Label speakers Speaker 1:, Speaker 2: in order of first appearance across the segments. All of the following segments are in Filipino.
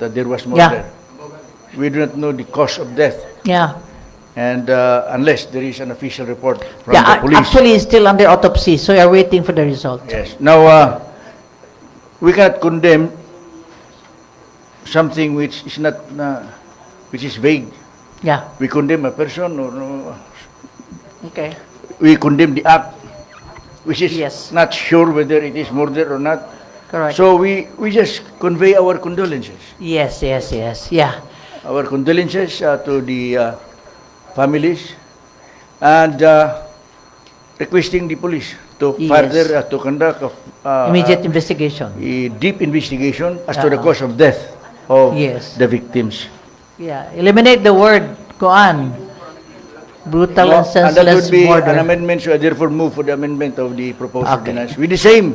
Speaker 1: that there was murder.
Speaker 2: Yeah.
Speaker 1: We do not know the cause of death,
Speaker 2: Yeah.
Speaker 1: and uh, unless there is an official report from
Speaker 2: yeah,
Speaker 1: the
Speaker 2: ac-
Speaker 1: police.
Speaker 2: actually, it's still under autopsy, so we are waiting for the result.
Speaker 1: yes. Now, uh, we cannot condemn something which is not, uh, which is vague.
Speaker 2: Yeah.
Speaker 1: We condemn a person, or no,
Speaker 2: Okay.
Speaker 1: we condemn the act, which is
Speaker 2: Yes.
Speaker 1: not sure whether it is murder or not.
Speaker 2: Correct.
Speaker 1: So we, we just convey our condolences.
Speaker 2: yes, yes, yes. Yeah.
Speaker 1: Our condolences uh, to the uh, families and uh, requesting the police to
Speaker 2: Yes.
Speaker 1: further uh, to conduct of, uh,
Speaker 2: Immediate investigation.
Speaker 1: a deep investigation as to the
Speaker 2: Uh-uh.
Speaker 1: cause of death of
Speaker 2: Yes.
Speaker 1: the victims.
Speaker 2: Yeah. Eliminate the word koan. Brutal
Speaker 1: and
Speaker 2: and
Speaker 1: that
Speaker 2: senseless
Speaker 1: would be an
Speaker 2: murder.
Speaker 1: amendment, so I therefore move for the amendment of the proposed
Speaker 2: Okay.
Speaker 1: ordinance with the same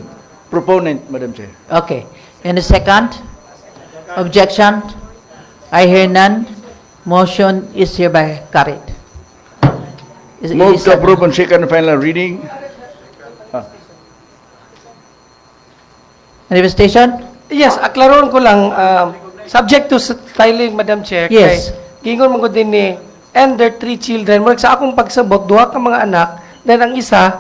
Speaker 1: proponent, Madam Chair.
Speaker 2: Okay. Any second? Objection? I hear none. Motion is hereby carried. Is-
Speaker 1: Move
Speaker 2: is
Speaker 1: to
Speaker 2: that-
Speaker 1: approve on second and final reading.
Speaker 2: Manifestation?
Speaker 3: Yes, aklaron ko lang, um, subject to styling, Madam Chair.
Speaker 2: Yes.
Speaker 3: Kay, gingon mo ko din ni, and their three children. Murag sa akong pagsabot, duha ka mga anak, then ang isa,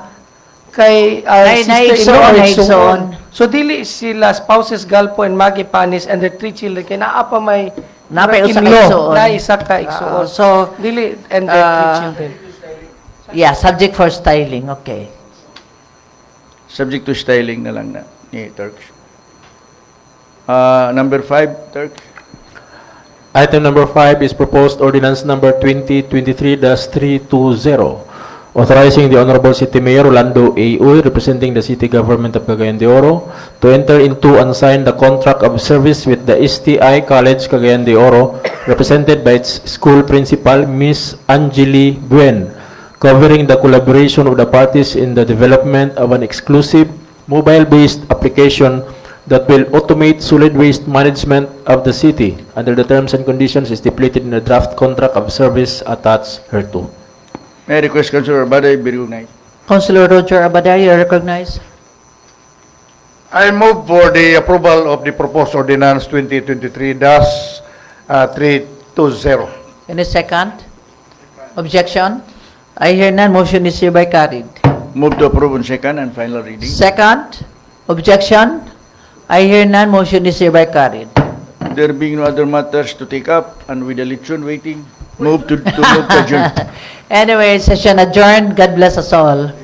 Speaker 3: kay uh,
Speaker 2: Nay-
Speaker 3: sister-in-law or
Speaker 2: naigsoon, naigsoon.
Speaker 3: igsoon. So, dili sila spouses Galpo and Maggie Panis and their three children. Kaya naa pa may
Speaker 2: Napay usa ka
Speaker 3: in-law,
Speaker 2: igsoon.
Speaker 3: Na isa ka igsoon.
Speaker 2: Ah, so,
Speaker 3: dili and their three
Speaker 2: ah,
Speaker 3: children.
Speaker 2: Yeah, subject for styling. Okay.
Speaker 1: Subject to styling na lang na ni Turks. Uh, number five, Turks.
Speaker 4: Item number five is proposed ordinance number 2023-320, authorizing the Honorable City Mayor Rolando A. Uy, representing the city government of Cagayan de Oro, to enter into and sign the contract of service with the STI College Cagayan de Oro, represented by its school principal, Miss Angeli Buen, covering the collaboration of the parties in the development of an exclusive mobile-based application that will automate solid waste management of the city under the terms and conditions stipulated in the draft contract of service attached hereto.
Speaker 1: May I request Councilor Baday be recognized.
Speaker 2: Councilor Roger Abadar, you are recognized.
Speaker 5: I move for the approval of the proposed ordinance uh, 2023-320.
Speaker 2: Any second? Objection? I hear none, motion is hereby carried.
Speaker 1: Move to approve on second and final reading.
Speaker 2: Second? Objection? I hear none, motion is hereby carried.
Speaker 1: There being no other matters to take up and with the election waiting, move to, to move to adjourn.
Speaker 2: Anyway, session adjourned, God bless us all.